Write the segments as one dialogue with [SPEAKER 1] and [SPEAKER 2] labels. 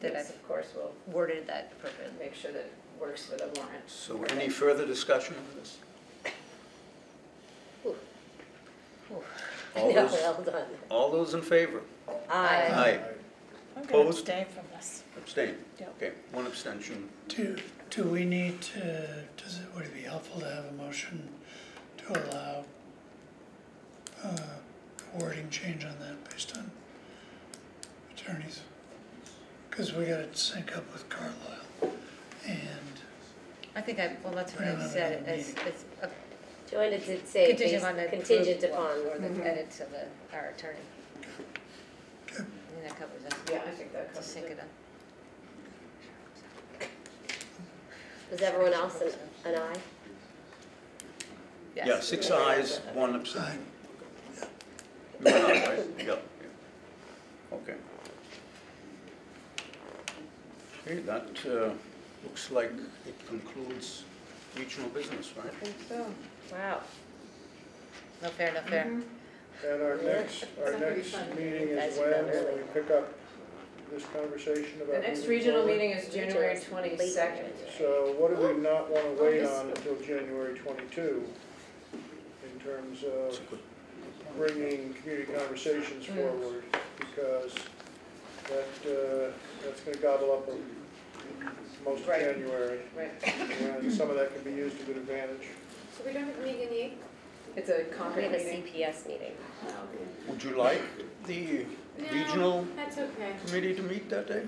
[SPEAKER 1] that I've,
[SPEAKER 2] Yes.
[SPEAKER 1] of course, will worded that appropriately.
[SPEAKER 2] make sure that it works for the warrant.
[SPEAKER 3] So any further discussion on this? All
[SPEAKER 4] Yeah,
[SPEAKER 3] those,
[SPEAKER 4] well done.
[SPEAKER 3] all those in favor?
[SPEAKER 1] Aye.
[SPEAKER 3] Aye,
[SPEAKER 5] I'm gonna
[SPEAKER 3] Opposed?
[SPEAKER 5] abstain from this.
[SPEAKER 3] abstain.
[SPEAKER 5] Yep.
[SPEAKER 3] Okay, one abstention.
[SPEAKER 6] Do, do we need to, does it, would it be helpful to have a motion to allow uh, wording change on that based on attorneys? Because we gotta sync up with Carlisle and,
[SPEAKER 1] I think I, well, that's what
[SPEAKER 6] Yeah,
[SPEAKER 1] I
[SPEAKER 6] no,
[SPEAKER 3] Uh,
[SPEAKER 6] no,
[SPEAKER 1] said,
[SPEAKER 6] no,
[SPEAKER 1] as, as a
[SPEAKER 4] Joanna did say
[SPEAKER 1] Contingent
[SPEAKER 4] based-
[SPEAKER 1] on the
[SPEAKER 4] contingent
[SPEAKER 1] approval.
[SPEAKER 4] upon,
[SPEAKER 1] or the
[SPEAKER 2] mm-hmm.
[SPEAKER 1] edit to the, our attorney.
[SPEAKER 6] Okay.
[SPEAKER 1] And that covers us,
[SPEAKER 2] Yeah, I think that
[SPEAKER 1] to
[SPEAKER 2] covers
[SPEAKER 1] sync
[SPEAKER 2] it.
[SPEAKER 1] it up.
[SPEAKER 4] was everyone else an, an aye?
[SPEAKER 3] Yeah, six ayes, one
[SPEAKER 6] aye,
[SPEAKER 3] abstention. You went aye, right? Yeah, yeah. Okay. Okay, that uh, looks like it concludes regional business, right?
[SPEAKER 2] I think so.
[SPEAKER 1] Wow. No fair, no fair.
[SPEAKER 2] Mm-hmm.
[SPEAKER 7] And our
[SPEAKER 4] Yeah.
[SPEAKER 7] next, our
[SPEAKER 2] It's not gonna be
[SPEAKER 7] next
[SPEAKER 2] fun.
[SPEAKER 7] meeting
[SPEAKER 4] Guys
[SPEAKER 7] is
[SPEAKER 4] are done
[SPEAKER 7] when,
[SPEAKER 4] early.
[SPEAKER 7] when we pick up this conversation about.
[SPEAKER 2] The next
[SPEAKER 7] moving
[SPEAKER 2] regional
[SPEAKER 7] forward.
[SPEAKER 2] meeting is January twenty-second.
[SPEAKER 7] So what do we not wanna wait
[SPEAKER 2] Oh,
[SPEAKER 7] on until January twenty-two? In terms of bringing community conversations
[SPEAKER 2] Mm.
[SPEAKER 7] forward, because that, uh, that's gonna gobble up a- most of
[SPEAKER 2] Right.
[SPEAKER 7] January.
[SPEAKER 2] Right,
[SPEAKER 7] And some of that can be used to good advantage.
[SPEAKER 8] So we don't have a meeting in the eighth?
[SPEAKER 2] it's a
[SPEAKER 4] We
[SPEAKER 2] Concord
[SPEAKER 4] have a
[SPEAKER 2] meeting. Oh,
[SPEAKER 4] CPS meeting.
[SPEAKER 3] Would you like the
[SPEAKER 8] No.
[SPEAKER 3] regional
[SPEAKER 8] That's okay.
[SPEAKER 3] committee to meet that day?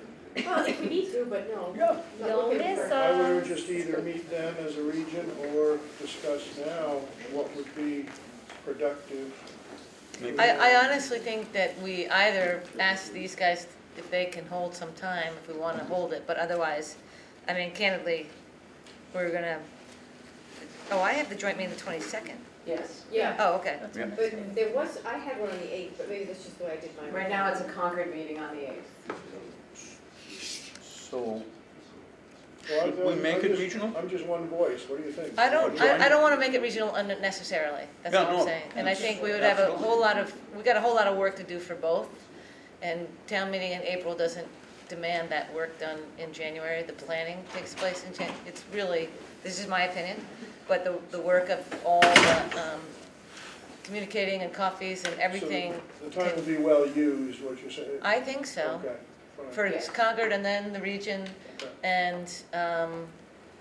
[SPEAKER 8] Well, if we need to, but no.
[SPEAKER 3] Yeah.
[SPEAKER 8] Not
[SPEAKER 4] You'll
[SPEAKER 8] looking
[SPEAKER 4] miss
[SPEAKER 8] for it.
[SPEAKER 4] us.
[SPEAKER 7] I
[SPEAKER 1] Um,
[SPEAKER 7] would just either meet them as a region or discuss now what would be productive.
[SPEAKER 3] Maybe.
[SPEAKER 7] I-
[SPEAKER 1] I, I honestly think that we either ask these guys if they can hold some time, if we wanna hold it, but otherwise, I mean, candidly, we're gonna, oh, I have the joint meeting the twenty-second.
[SPEAKER 2] Yes.
[SPEAKER 8] Yeah,
[SPEAKER 1] Oh, okay.
[SPEAKER 5] That's
[SPEAKER 3] Yeah.
[SPEAKER 5] what I'm saying.
[SPEAKER 8] but there was, I had one on the eighth, but maybe that's just the way I did mine.
[SPEAKER 2] Right now, it's a Concord meeting on the eighth.
[SPEAKER 3] So,
[SPEAKER 7] Well,
[SPEAKER 3] Should we
[SPEAKER 7] I'm
[SPEAKER 3] make it
[SPEAKER 7] just-
[SPEAKER 3] regional?
[SPEAKER 7] I'm just one voice, what do you think?
[SPEAKER 1] I don't,
[SPEAKER 3] Join.
[SPEAKER 1] I, I don't wanna make it regional unnecessarily, that's
[SPEAKER 3] Yeah,
[SPEAKER 1] all
[SPEAKER 3] no,
[SPEAKER 1] I'm saying. And I think we would have
[SPEAKER 3] that's-
[SPEAKER 1] a whole lot of, we got a whole lot of work to do for both. And town meeting in April doesn't demand that work done in January, the planning takes place in Jan, it's really, this is my opinion, but the, the work of all the, um, communicating and coffees and everything,
[SPEAKER 7] So The time would be well used, what you're saying?
[SPEAKER 1] I think so.
[SPEAKER 7] Okay, fine.
[SPEAKER 1] For
[SPEAKER 2] Yeah.
[SPEAKER 1] Concord and then the region,
[SPEAKER 7] Okay.
[SPEAKER 1] and um,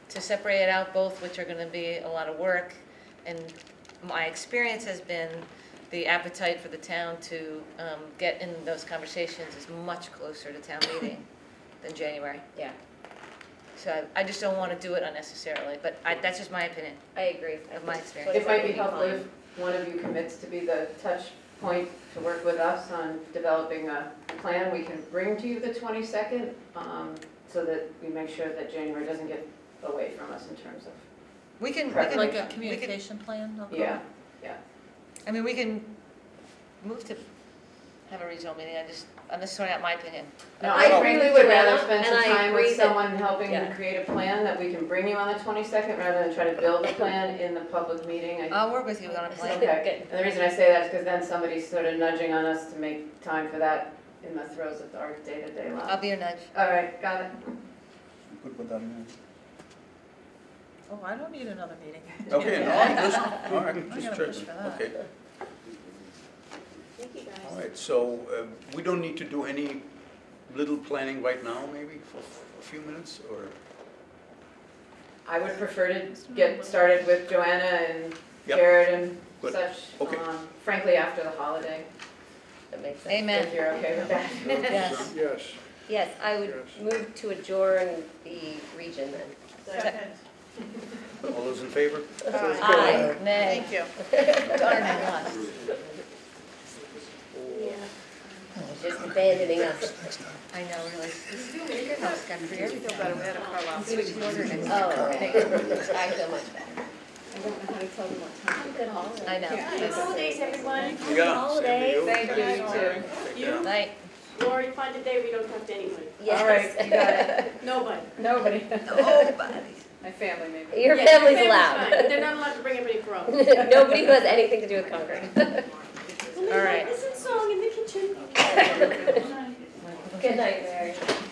[SPEAKER 1] to separate it out both, which are going to be a lot of work. And my experience has been the appetite for the town to um, get in those conversations is much closer to town meeting than January.
[SPEAKER 4] Yeah.
[SPEAKER 1] So I- I just don't want to do it unnecessarily, but I- that's just my opinion.
[SPEAKER 4] I agree.
[SPEAKER 1] Of my experience.
[SPEAKER 2] It might be helpful if one of you commits to be the touch point to work with us on developing a plan we can bring to you the 22nd, um, so that we make sure that January doesn't get away from us in terms of,
[SPEAKER 1] We can, we
[SPEAKER 2] Correct.
[SPEAKER 1] can-
[SPEAKER 2] Like
[SPEAKER 5] Like a
[SPEAKER 1] we can,
[SPEAKER 5] communication plan? I'll call
[SPEAKER 2] yeah.
[SPEAKER 5] it.
[SPEAKER 1] I mean, we can move to have a regional meeting, I just, I'm just throwing out my opinion.
[SPEAKER 2] No,
[SPEAKER 4] I
[SPEAKER 2] I
[SPEAKER 4] agree
[SPEAKER 2] frankly
[SPEAKER 4] with
[SPEAKER 2] would
[SPEAKER 4] Joanna,
[SPEAKER 2] rather spend some
[SPEAKER 4] and I
[SPEAKER 2] time
[SPEAKER 4] agree
[SPEAKER 2] with
[SPEAKER 4] that-
[SPEAKER 2] someone helping to
[SPEAKER 4] yeah.
[SPEAKER 2] create a plan that we can bring you on the 22nd, rather than try to build a plan in the public meeting. I-
[SPEAKER 1] I'll work with you on a plan.
[SPEAKER 2] Okay, and the reason I say that is because then somebody's sort of nudging on us to make time for that in the throes of our day-to-day life.
[SPEAKER 1] I'll be your nudge.
[SPEAKER 2] All right, got it.
[SPEAKER 3] Good with that, man.
[SPEAKER 5] Oh, I don't need another meeting.
[SPEAKER 3] Okay, no, I'm just, all right,
[SPEAKER 5] I'm
[SPEAKER 3] just
[SPEAKER 5] gonna push for
[SPEAKER 3] checking,
[SPEAKER 5] that.
[SPEAKER 3] okay.
[SPEAKER 8] Thank you guys.
[SPEAKER 3] All right, so uh, we don't need to do any little planning right now, maybe, for f- a few minutes, or?
[SPEAKER 2] I would prefer to get started with Joanna and
[SPEAKER 3] Yep.
[SPEAKER 2] Jared and
[SPEAKER 3] Good.
[SPEAKER 2] such,
[SPEAKER 3] Okay.
[SPEAKER 2] um, frankly, after the holiday,
[SPEAKER 4] That makes sense.
[SPEAKER 1] Amen.
[SPEAKER 2] if you're okay with that.
[SPEAKER 4] Yes.
[SPEAKER 7] Yes,
[SPEAKER 4] Yes, I would
[SPEAKER 7] Yes.
[SPEAKER 4] move to adjourn the region then.
[SPEAKER 3] All those in favor?
[SPEAKER 1] Uh,
[SPEAKER 4] Aye.
[SPEAKER 1] Nay.
[SPEAKER 5] Thank you.
[SPEAKER 1] Darn, I lost.
[SPEAKER 4] Yeah.
[SPEAKER 6] well,
[SPEAKER 4] Just abandoning us.
[SPEAKER 6] next time.
[SPEAKER 1] I know, really. This is your house, Godfrey.
[SPEAKER 5] I feel better. We had a Carlisle.
[SPEAKER 1] Switch the order next time.
[SPEAKER 4] Oh, okay. I feel much better.
[SPEAKER 8] I don't know how to tell them what time. Good holiday.
[SPEAKER 1] I know.
[SPEAKER 8] Good holidays, everyone.
[SPEAKER 3] Yeah, same to you.
[SPEAKER 2] Thank you, you too.
[SPEAKER 3] Take care.
[SPEAKER 8] You,
[SPEAKER 1] Night.
[SPEAKER 8] Lori, find a day we don't talk to anyone.
[SPEAKER 4] Yes.
[SPEAKER 2] All right, you got it.
[SPEAKER 8] Nobody.
[SPEAKER 2] Nobody.
[SPEAKER 1] Nobody.
[SPEAKER 2] My family, maybe.
[SPEAKER 4] Your
[SPEAKER 8] Yeah, your
[SPEAKER 4] family's
[SPEAKER 8] fine, but
[SPEAKER 4] allowed.
[SPEAKER 8] They're not allowed to bring anybody from.
[SPEAKER 4] Nobody who has anything to do with Concord.
[SPEAKER 1] All right.
[SPEAKER 8] Listen song in the kitchen.
[SPEAKER 4] Good night, Mary.